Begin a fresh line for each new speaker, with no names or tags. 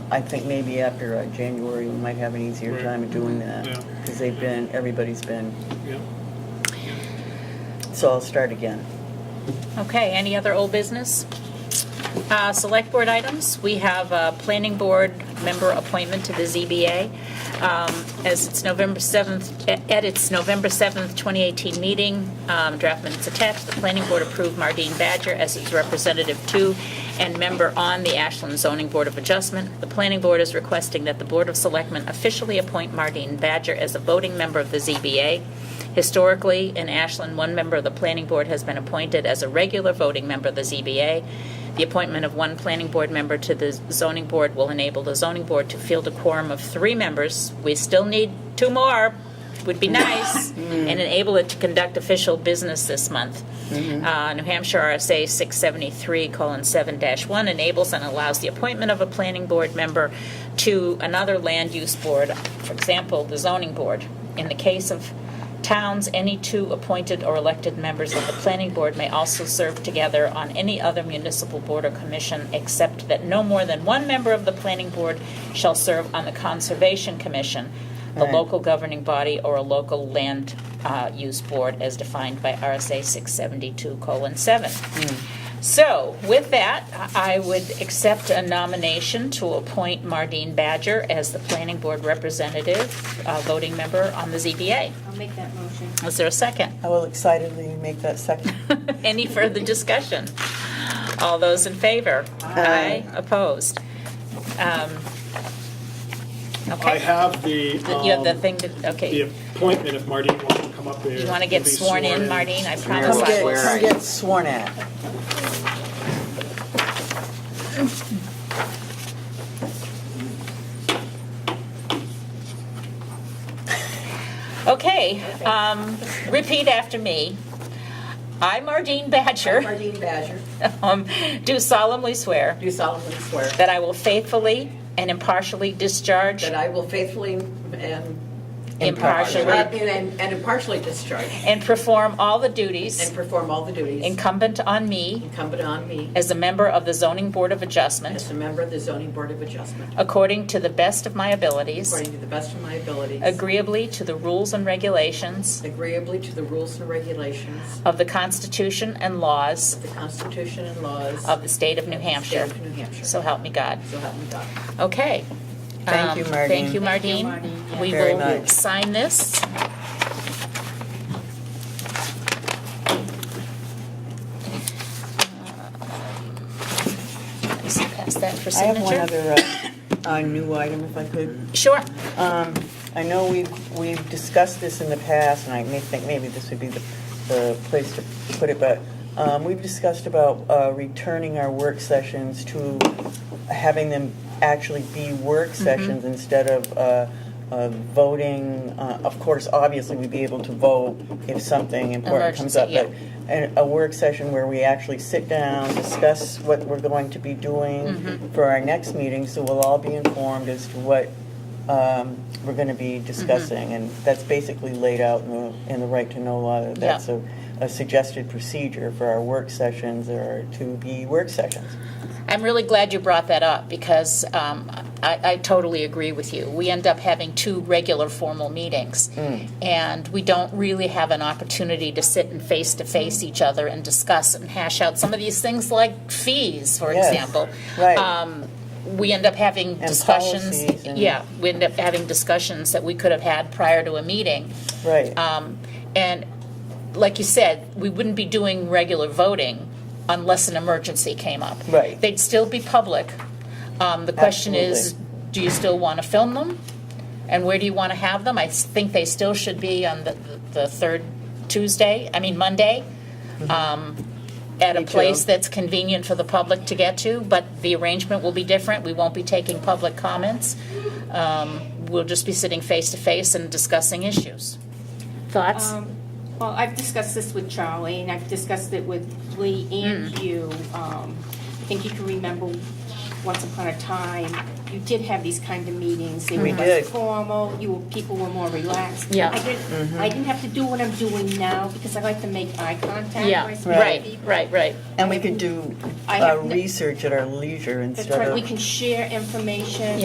I think maybe after uh, January, we might have an easier
Right.
time of doing that.
Yeah.
Because they've been, everybody's been,
yeah.
so I'll start again.
Okay, any other old business? Uh, Select board items, we have a planning board member appointment to the ZBA. Um, As it's November 7th, at its November 7th, 2018 meeting, um, draft minutes attached, the planning board approved Mardine Badger as its representative to and member on the Ashland Zoning Board of Adjustment. The planning board is requesting that the Board of Selectmen officially appoint Mardine Badger as a voting member of the ZBA. Historically, in Ashland, one member of the planning board has been appointed as a regular voting member of the ZBA. The appointment of one planning board member to the zoning board will enable the zoning board to field a quorum of three members. We still need two more, would be nice, and enable it to conduct official business this month. Uh, New Hampshire RSA 673 colon 7 dash 1 enables and allows the appointment of a planning board member to another land use board, for example, the zoning board. In the case of Towns, any two appointed or elected members of the planning board may also serve together on any other municipal board or commission, except that no more than one member of the planning board shall serve on the Conservation Commission, the
Right.
local governing body, or a local land uh, use board as defined by RSA 672 colon 7. So, with that, I would accept a nomination to appoint Mardine Badger as the planning board representative, uh, voting member on the ZBA.
I'll make that motion.
Is there a second?
I will excitedly make that second.
Any further discussion? All those in favor?
Aye.
Opposed? Um,
I
Okay.
have the,
You have the
um,
thing to,
the
okay.
appointment if Mardine wants to come up there.
You want to
and
get
be
sworn in, Martine? I promise
Come
I
get,
will.
come get sworn at.
Okay, um, repeat after me. I, Mardine Badger,
Mardine Badger,
um, do solemnly swear
do solemnly swear
that I will faithfully and impartially discharge,
that I will faithfully and
impartially,
and and impartially discharge
and perform all the
and
duties
perform all the duties
incumbent on me
incumbent on me
as a member of the Zoning Board of Adjustment
as a member of the zoning board of adjustment,
According to the best of my abilities.
according to the best of my abilities,
Agreeably to the rules and regulations
agreeably to the rules and regulations
of the Constitution and laws
of the Constitution and laws
of the state of New
the state
Hampshire.
of New Hampshire.
So help me God.
So help me God.
Okay.
Thank
Um,
you, Mardine.
Thank you,
Thank you,
Mardine.
Mardine.
We
Very
will
much.
sign this. Uh, Pass that for
I have one
signature.
other, uh, uh, new item if I could.
Sure.
Um, I know we've, we've discussed this in the past, and I may think maybe this would be the, the place to put it, but um, we've discussed about uh, returning our work sessions to having them actually be work sessions instead of uh, uh, voting. Uh, Of course, obviously, we'd be able to vote if something important comes up, but
Emergency,
and a work session where we actually sit down, discuss what we're going to be doing
Mm-hmm.
for our next meeting, so we'll all be informed as to what um, we're going to be
Mm-hmm.
discussing. And that's basically laid out in the, in the right to know law. that That's a, a suggested procedure for our work sessions or to be work sessions.
I'm really glad you brought that up because um, I, I totally agree with you. We end up having two regular formal meetings,
Mm.
and we don't really have an opportunity to sit and face to face each other and discuss and hash out some of these things like fees, for
Yes.
example.
Right.
Um, we end up having discussions.
policies and-
Yeah, we end up having discussions that we could have had prior to a meeting.
Right.
Um, And like you said, we wouldn't be doing regular voting unless an emergency came up.
Right.
They'd still be public. Um, The question is,
Absolutely.
do you still want to film them? And where do you want to have them? I s- think they still should be on the, the third Tuesday, I mean, Monday, um, at
Mm-hmm.
a
Me too.
place that's convenient for the public to get to, but the arrangement will be different. We won't be taking public comments. Um, We'll just be sitting face-to-face and discussing issues. Thoughts?
Um, Well, I've discussed this with Charlie, and I've discussed it with Lee and
Mm.
you. Um, I think you can remember, once upon a time, you did have these kind of meetings. They
We
were
did.
less formal, you, were- people were more relaxed.
Mm-hmm. Yeah. Mm-hmm.
I didn't, I didn't have to do what I'm doing now, because I like to make eye contact. when
Yeah,
I speak to
right,
people.
right, right.
And we could do
I
uh,
have n-
research at our leisure instead
That's
of.
right, we can share information.